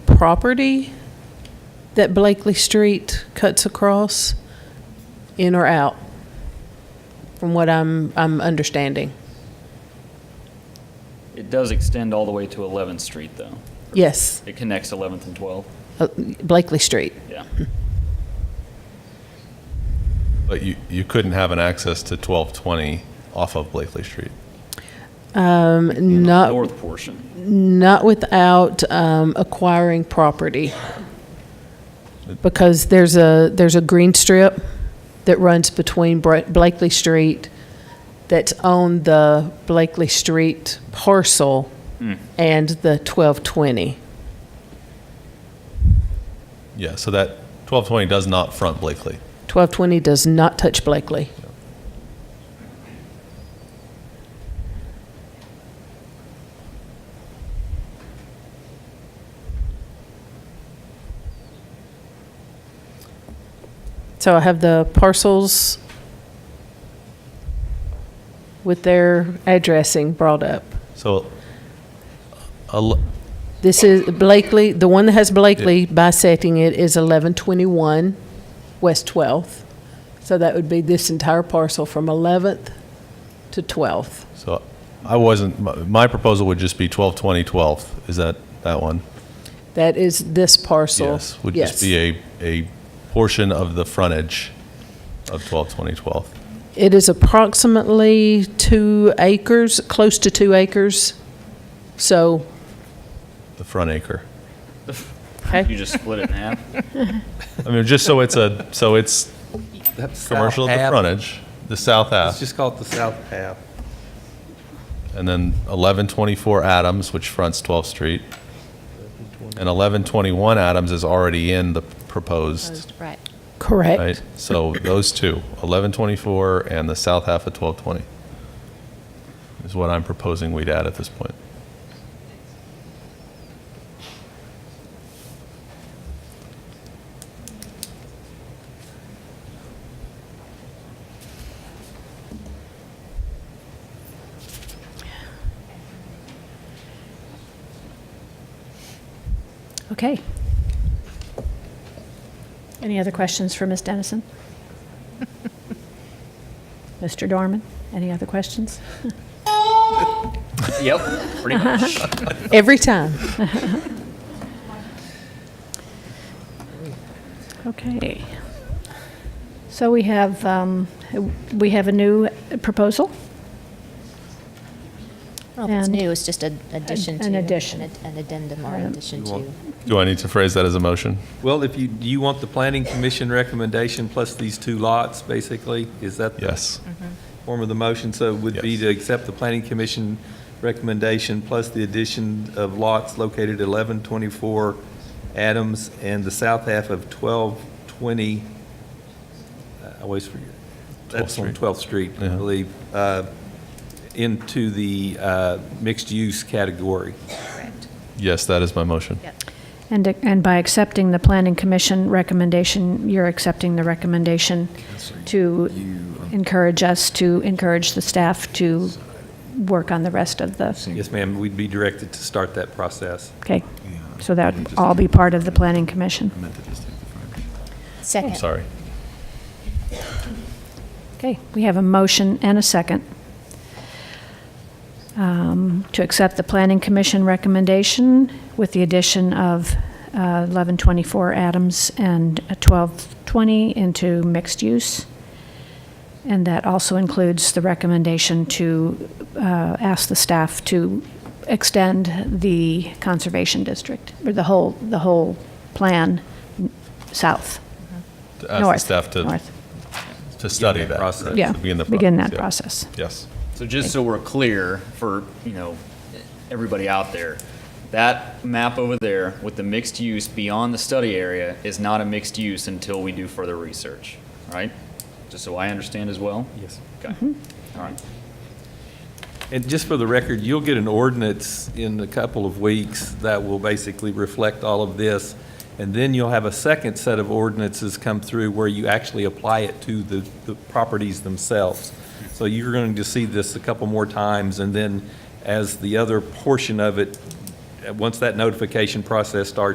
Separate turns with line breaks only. property that Blakely Street cuts across, in or out? From what I'm, I'm understanding.
It does extend all the way to 11th Street, though.
Yes,
It connects 11th and 12th,
uh, Blakely Street.
yeah.
But you, you couldn't have an access to 1220 off of Blakely Street.
Um, not,
North portion.
not without, um, acquiring property. Because there's a, there's a green strip that runs between Bra- Blakely Street that's on the Blakely Street parcel and the 1220.
Yeah, so that 1220 does not front Blakely.
1220 does not touch Blakely. So I have the parcels with their addressing brought up.
So el-
This is Blakely, the one that has Blakely bisecting it is 1121 West 12th. So that would be this entire parcel from 11th to 12th.
So I wasn't, my- my proposal would just be 1220 12th. Is that, that one?
That is this parcel.
Yes, would just be a, a portion of the frontage of 1220 12th.
It is approximately two acres, close to two acres. So,
the front acre.
You just split it in half.
I mean, just so it's a, so it's
That's
commercial at the frontage, the south
Let's
half,
just call it the south half.
and then 1124 Adams, which fronts 12th Street. And 1121 Adams is already in the proposed,
Proposed, Right.
correct.
right? So those two, 1124 and the south half of 1220 is what I'm proposing we'd add at this point.
Okay. Any other questions for Ms. Dennison? Mr. Dorman, any other questions?
Yep, pretty much.
Every time.
Okay. So we have, um, we have a new proposal?
Well, if it's
And-
new, it's just an addition to.
An addition. Um,
An ad- an addendum or
Right.
addition
You want-
to.
Do I need to phrase that as a motion?
Well, if you, do you want the planning commission recommendation plus these two lots, basically? Is that the
Yes.
Mm-hmm.
form of the motion? So it would be
Yes.
to accept the planning commission recommendation plus the addition of lots located at 1124 Adams and the south half of 1220, I always forget,
12th
that's on
Street.
12th Street, I
Yeah.
believe, uh, into the uh, mixed-use category.
Yes, that is my motion.
And, and by accepting the planning commission recommendation, you're accepting the recommendation to encourage us, to encourage the staff to work on the rest of the,
Yes, ma'am, we'd be directed to start that process.
okay? So that would all be part of the planning commission.
I'm
Second.
sorry.
Okay, we have a motion and a second um, to accept the Planning Commission recommendation with the addition of uh, 1124 Adams and 1220 into mixed use. And that also includes the recommendation to uh, ask the staff to extend the conservation district, or the whole, the whole plan south,
To Ask the
north.
staff to,
north.
to study
that
that.
process.
right?
Yeah,
To Begin the process.
begin that
yeah.
process.
Yes.
So just so we're clear for, you know, everybody out there, that map over there with the mixed use beyond the study area is not a mixed use until we do further research, right? Just so I understand as well?
Yes.
Okay, all right.
And just for the record, you'll get an ordinance in a couple of weeks that will basically reflect all of this. And then you'll have a second set of ordinances come through where you actually apply it to the, the properties themselves. So you're going to see this a couple more times, and then as the other portion of it, uh, once that notification process starts,